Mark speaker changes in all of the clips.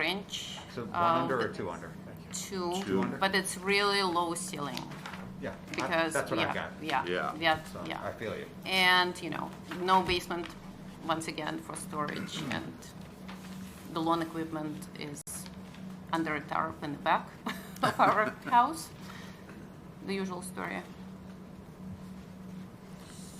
Speaker 1: range.
Speaker 2: So one
Speaker 1: um,
Speaker 2: under or two under? Thank you.
Speaker 1: Two,
Speaker 2: Two under?
Speaker 1: but it's really low ceiling
Speaker 2: Yeah, I-
Speaker 1: because,
Speaker 2: that's what I
Speaker 1: yeah,
Speaker 2: got.
Speaker 1: yeah,
Speaker 3: Yeah.
Speaker 1: yeah,
Speaker 2: So I
Speaker 1: yeah.
Speaker 2: feel you.
Speaker 1: And, you know, no basement, once again, for storage
Speaker 2: Mm-hmm.
Speaker 1: and the lawn equipment is under a tarp in the back of our house. The usual story.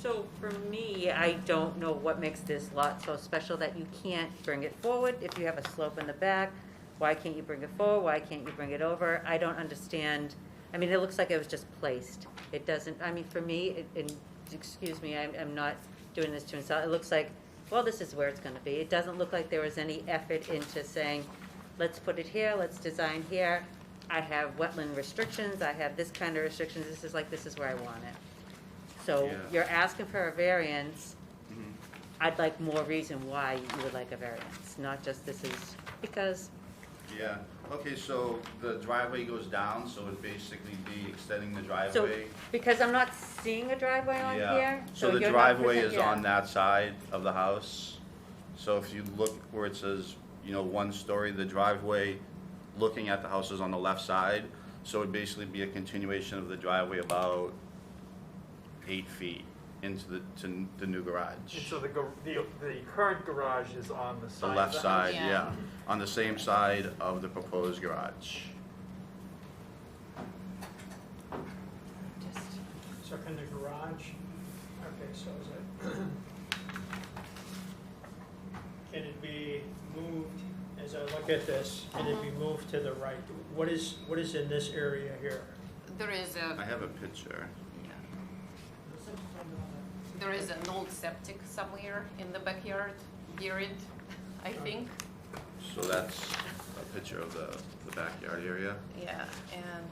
Speaker 4: So for me, I don't know what makes this lot so special that you can't bring it forward if you have a slope in the back. Why can't you bring it forward? Why can't you bring it over? I don't understand. I mean, it looks like it was just placed. It doesn't, I mean, for me, it- and, excuse me, I'm, I'm not doing this to insult, it looks like, well, this is where it's gonna be. It doesn't look like there was any effort into saying, let's put it here, let's design here. I have wetland restrictions, I have this kind of restrictions, this is like, this is where I want it. So
Speaker 3: Yeah.
Speaker 4: you're asking for a variance.
Speaker 5: Mm-hmm.
Speaker 4: I'd like more reason why you would like a variance, not just this is, because,
Speaker 5: Yeah, okay, so the driveway goes down, so it'd basically be extending the
Speaker 4: so,
Speaker 5: driveway.
Speaker 4: because I'm not seeing a driveway on
Speaker 5: Yeah,
Speaker 4: here.
Speaker 5: so the
Speaker 4: you're not
Speaker 5: driveway is
Speaker 4: present- yeah.
Speaker 5: on that side of the house. So if you look where it says, you know, one story, the driveway, looking at the house is on the left side. So it'd basically be a continuation of the driveway about eight feet into the, to the new
Speaker 6: And
Speaker 5: garage.
Speaker 6: so the, gar- the, the current garage is on the
Speaker 5: The
Speaker 6: side.
Speaker 5: left
Speaker 6: of the
Speaker 5: side,
Speaker 6: house?
Speaker 1: Yeah.
Speaker 5: yeah, on the same side of the proposed garage.
Speaker 1: Just-
Speaker 7: So can the garage, okay, so is it, can it be moved, as I look at this, can it be
Speaker 1: Uh-huh.
Speaker 7: moved to the right? What is, what is in this area here?
Speaker 1: There is
Speaker 5: I
Speaker 1: a,
Speaker 5: have a picture.
Speaker 1: there is an old septic somewhere in the backyard, near it, I think.
Speaker 5: So that's a picture of the, the backyard area.
Speaker 1: Yeah, and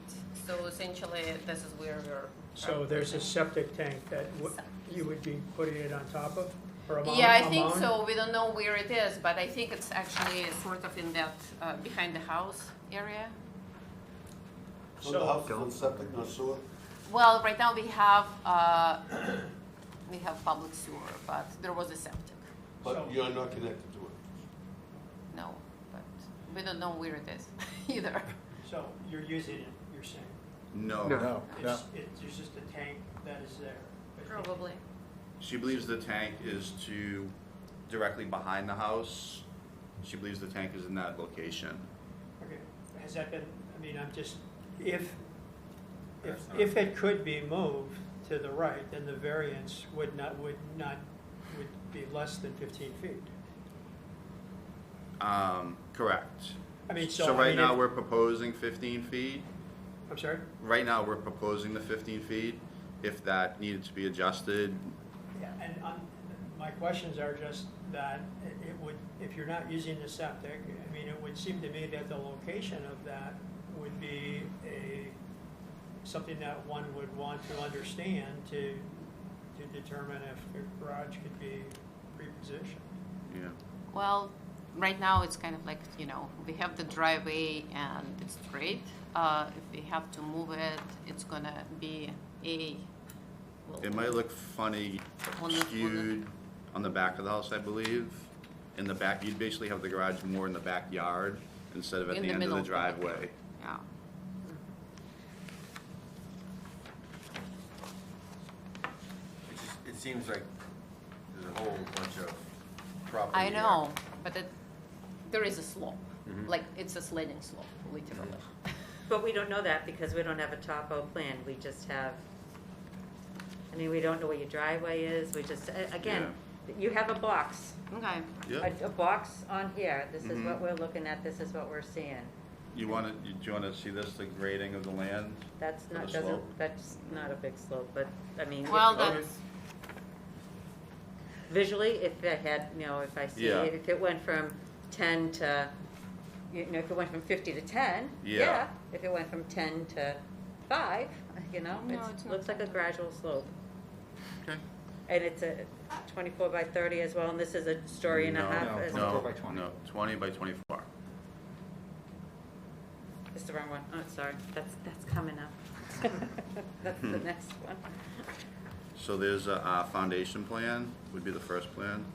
Speaker 1: so essentially, this is where we're.
Speaker 7: So there's a septic tank that w- you would be putting it on top of, or among?
Speaker 1: Yeah, I think
Speaker 7: among?
Speaker 1: so. We don't know where it is, but I think it's actually sort of in that, uh, behind the house area.
Speaker 8: So the
Speaker 7: So,
Speaker 8: house is on septic, no sewer?
Speaker 1: Well, right now we have, uh, we have public sewer, but there was a septic.
Speaker 7: So-
Speaker 8: But you're not connected to it?
Speaker 1: No, but we don't know where it is either.
Speaker 7: so you're using it, you're saying?
Speaker 5: No,
Speaker 7: It's, it- there's just a tank that is there. but-
Speaker 1: Probably.
Speaker 5: she believes the tank is to directly behind the house. She believes the tank is in that location.
Speaker 7: Okay, has that been, I mean, I'm just, if, if, if it could be moved to the right, then the variance would not, would not, would be less than fifteen feet.
Speaker 5: Um, correct.
Speaker 7: I mean, so,
Speaker 5: So
Speaker 7: I
Speaker 5: right
Speaker 7: mean,
Speaker 5: now,
Speaker 7: if-
Speaker 5: we're proposing fifteen feet.
Speaker 7: I'm sorry?
Speaker 5: Right now, we're proposing the fifteen feet. If that needed to be adjusted,
Speaker 7: Yeah, and um, my questions are just that it- it would, if you're not using the septic, I mean, it would seem to me that the location of that would be a, something that one would want to understand to, to determine if the garage could be repositioned.
Speaker 5: you know,
Speaker 1: Well, right now it's kind of like, you know, we have the driveway and it's straight. Uh, if we have to move it, it's gonna be a. well,
Speaker 5: it might look funny
Speaker 1: On the- on the-
Speaker 5: skewed on the back of the house, I believe. In the back, you'd basically have the garage more in the backyard instead of at
Speaker 1: In
Speaker 5: the
Speaker 1: the
Speaker 5: end of
Speaker 1: middle
Speaker 5: the
Speaker 1: of the
Speaker 5: driveway.
Speaker 1: Yeah.
Speaker 9: It just, it seems like there's a whole bunch of property
Speaker 1: I
Speaker 9: here. Mm-hmm.
Speaker 1: know, but it, there is a slope, like it's a sliding slope, literally.
Speaker 4: But we don't know that because we don't have a topo plan, we just have, I mean, we don't know where your driveway is, we just, a- again, you have a box,
Speaker 1: Okay,
Speaker 5: Yeah.
Speaker 4: a, a box on here, this is what
Speaker 5: Mhm.
Speaker 4: we're looking at, this is what we're seeing.
Speaker 5: You want to, do you want to see this, the grading of the land?
Speaker 4: That's
Speaker 5: For
Speaker 4: not,
Speaker 5: the
Speaker 4: doesn't,
Speaker 5: slope?
Speaker 4: that's not a big slope, but, I mean. if-
Speaker 1: well, that's,
Speaker 4: Visually, if I had, you know, if I see
Speaker 5: Yeah.
Speaker 4: it, if it went from ten to, you know, if it went from fifty to ten,
Speaker 5: Yeah.
Speaker 4: yeah. If it went from ten to five, you know,
Speaker 1: No, it's
Speaker 4: it
Speaker 1: not
Speaker 4: looks like a gradual slope.
Speaker 5: Okay.
Speaker 4: And it's a twenty-four by thirty as well, and this is a story and a
Speaker 5: No,
Speaker 4: half.
Speaker 2: no,
Speaker 4: is-
Speaker 2: no. 24
Speaker 5: No,
Speaker 2: by 20.
Speaker 5: no, twenty by twenty-four.
Speaker 4: It's the wrong one. Oh, sorry, that's, that's coming up. That's the
Speaker 5: Hmm.
Speaker 4: next one.
Speaker 5: So there's a, uh, foundation plan, would be the first plan.